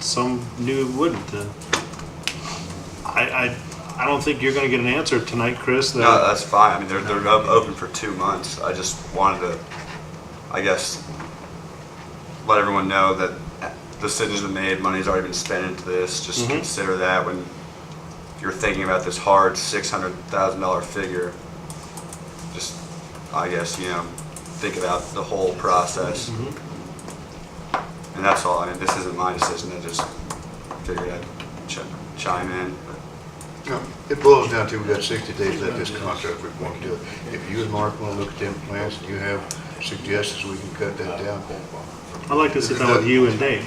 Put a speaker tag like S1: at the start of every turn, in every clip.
S1: some knew it wouldn't. And I, I, I don't think you're going to get an answer tonight, Chris. That
S2: No,
S3: Uh,
S2: that's fine. I mean, they're, they're up- open for two months. I just wanted to, I guess, let everyone know that decisions have been made, money's already been spent into this. Just
S1: Mhm.
S2: consider that when you're thinking about this hard six hundred thousand dollar figure. Just, I guess, you know, think about the whole process.
S1: Mhm.
S2: And that's all. I mean, this isn't my decision. I just figured I'd ch- chime in.
S4: No, It boils down to, we've got 60 days left this contract, we want to do it. If you and Mark want to look at them plans and you have suggestions, we can cut that down.
S1: I'd like to sit down with you and Dave.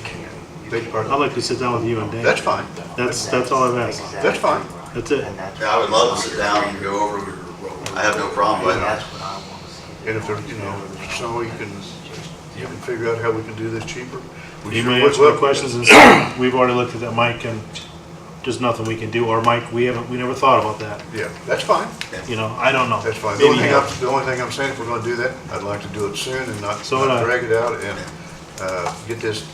S4: Beg your
S1: I'd
S4: pardon?
S1: like to sit down with you and Dave.
S4: That's fine.
S1: That's, that's all I've asked.
S4: That's fine.
S1: That's it.
S3: Yeah, I would love to sit down and go over, I have no problem with it.
S4: And if, there, you know, so you can, you can figure out how we can do this cheaper. we
S1: You
S4: sure
S1: may
S4: would
S1: answer my
S4: love to.
S1: questions and say, we've already looked at that, Mike, and there's nothing we can do, or Mike, we haven't, we never thought about that.
S4: Yeah, that's fine,
S1: You know, I don't know.
S4: that's fine. The
S1: Maybe
S4: only thing
S1: you-
S4: I'm, the only thing I'm saying, if we're going to do that, I'd like to do it soon and not
S1: So would I.
S4: not drag it out and uh, get this,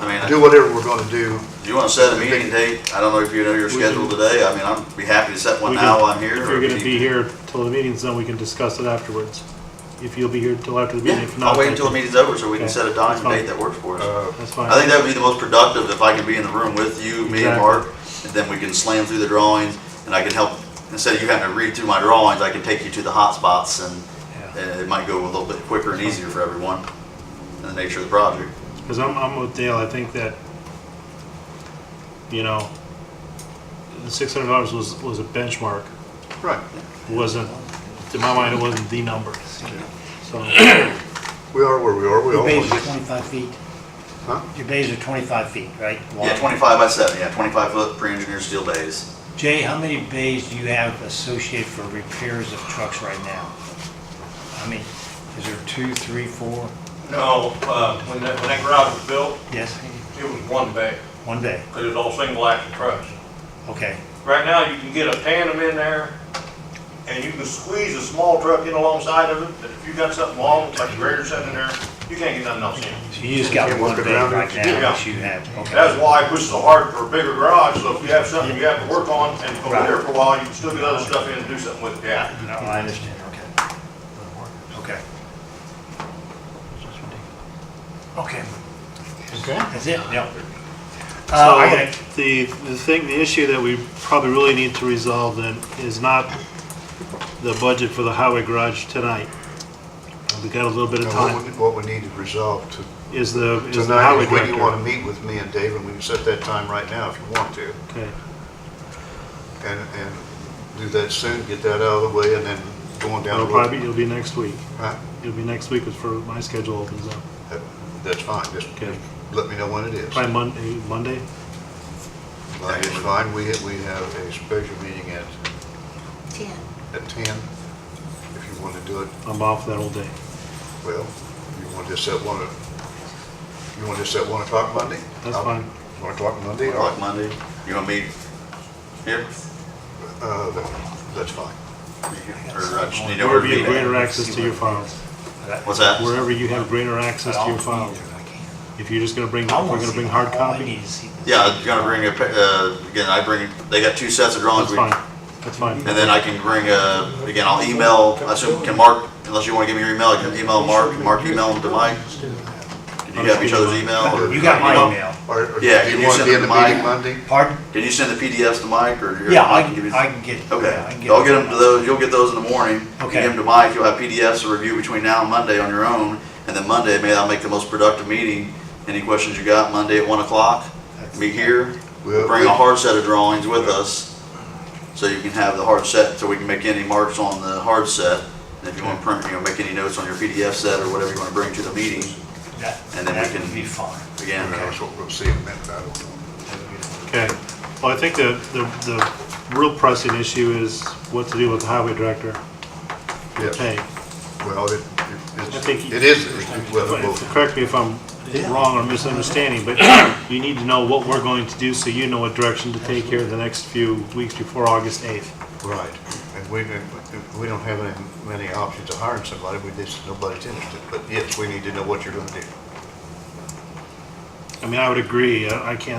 S3: I
S4: do
S3: mean,
S4: whatever we're going to do.
S3: if you want to set a meeting date, I don't know if you know your
S1: We
S3: schedule
S1: can-
S3: today, I mean, I'd be happy to set one
S1: we can-
S3: now while I'm here.
S1: If
S3: or
S1: you're gonna
S3: if
S1: be
S3: you-
S1: here till the meeting's done, we can discuss it afterwards. If you'll be here till after the meeting,
S3: Yeah,
S1: if not.
S3: I'll wait until the meeting's over so we can
S1: Okay,
S3: set a
S1: that's
S3: time and
S1: fine.
S3: date that works for us.
S4: Uh,
S1: That's
S3: I think
S1: fine.
S3: that would be the most productive if I can be in the room with you, me and
S1: Exactly.
S3: Mark, and then we can slam through the drawings and I can help, instead of you having to read through my drawings, I can take you to the hot spots and
S1: Yeah.
S3: and it might go a little bit quicker and easier for everyone and the nature of the project.
S1: Cause I'm, I'm with Dale, I think that, you know, the six hundred dollars was, was a benchmark,
S4: Right,
S1: wasn't, to my mind, it wasn't the number. So,
S4: we are where we are, we
S5: Your bays
S4: almost,
S5: are 25 feet,
S4: huh?
S5: your bays are 25 feet, right?
S3: Yeah,
S5: Long.
S3: 25 by 7, yeah, 25 foot pre-engineered steel bays.
S5: Jay, how many bays do you have associated for repairs of trucks right now? I mean, is there two, three, four?
S6: No, uh, when that, when that garage was built,
S5: Yes,
S6: it was one bay,
S5: one bay,
S6: because it was all single axle trucks.
S5: okay.
S6: Right now, you can get a tandem in there, and you can squeeze a small truck in alongside of it, but if you got something long, like a grader sitting in there, you can't get nothing else in.
S5: So you just got
S4: Can't
S5: one
S4: work
S5: bay
S4: around it.
S5: right now
S6: Yeah.
S5: that you have,
S6: That's
S5: okay.
S6: why I push so hard for a bigger garage, so if you have something you have to work on, and go there for a while, you can still get other stuff in and do something with it, yeah.
S5: No, I understand, okay. Okay. Okay,
S4: Okay.
S5: that's it, yeah.
S1: So
S5: Uh, okay,
S1: the, the thing, the issue that we probably really need to resolve then is not the budget for the highway garage tonight. We got a little bit of
S4: Now,
S1: time.
S4: What we, what we need to resolve to
S1: Is the, is the
S4: Tonight,
S1: highway
S4: is when you want
S1: director.
S4: to meet with me and Dave, and we can set that time right now if you want to,
S1: Okay,
S4: and, and do that soon, get that out of the way, and then going down
S1: it'll
S4: the
S1: probably, be-
S4: road.
S1: it'll be next week.
S4: Huh?
S1: It'll be next week is for my schedule opens up.
S4: That- That's fine, just
S1: Okay,
S4: let me know when it is.
S1: probably Monday, Monday?
S4: It's fine, we, we have a special meeting at,
S7: 10.
S4: at ten, if you want to do it,
S1: I'm off that whole day.
S4: well, you want to set one, o- you want to set one o'clock Monday?
S1: That's
S4: I'll-
S1: fine.
S4: One o'clock Monday, all
S3: Like
S4: right,
S3: Monday, you want to meet here?
S4: uh, that- that's fine.
S3: Or uh, just need to
S1: Wherever you have greater
S3: overview?
S1: access to your files,
S3: What's that?
S1: wherever you have greater access to your files. If you're just gonna bring, if we're gonna bring hard copy,
S3: Yeah, I'm gonna bring a, pa- uh, again, I bring, they got two sets of
S1: that's
S3: drawings. we-
S1: fine, that's fine.
S3: And then I can bring, uh, again, I'll email, I assume, can Mark, unless you want to give me your email, I can email Mark, Mark email him to Mike. Can you have each other's email? or-
S5: You got my email.
S4: Or- or
S3: Yeah,
S4: do
S3: can
S4: you
S3: you
S4: want to
S3: send
S4: be in the
S3: them my-
S4: meeting Monday?
S5: Pardon?
S3: Can you send the PDFs to Mike or? or
S5: Yeah, I
S3: can give
S5: can,
S3: you-
S5: I can get. yeah, I can
S3: Okay, I'll get them to
S5: it.
S3: those, you'll get those in the morning. You
S5: Okay.
S3: Give them to Mike, you'll have PDFs to review between now and Monday on your own, and then Monday, maybe I'll make the most productive meeting. Any questions you got, Monday at one o'clock, meet here,
S4: We'll-
S3: bring a
S4: we'll-
S3: hard set of drawings with us, so you can have the hard set, so we can make any marks on the hard set. And if you want to print, you know, make any notes on your PDF set or whatever you want to bring to the meeting,
S5: That,
S3: and then we
S5: that
S3: can-
S5: would be fine.
S3: again.
S4: That's what we'll see in a minute, I don't know.
S1: Okay, well, I think the, the, the real pressing issue is what to do with the highway director.
S4: Yes.
S1: Hey,
S4: Well, it,
S1: I
S4: it's,
S1: think-
S4: it is, well, well,
S1: correct me if I'm wrong or misunderstanding, but you need to know what we're going to do so you know what direction to take here the next few weeks before August eighth.
S4: right. And we, we don't have any, many options of hiring somebody, we just, nobody's interested. But yes, we need to know what you're gonna do.
S1: I mean, I would agree, I I can't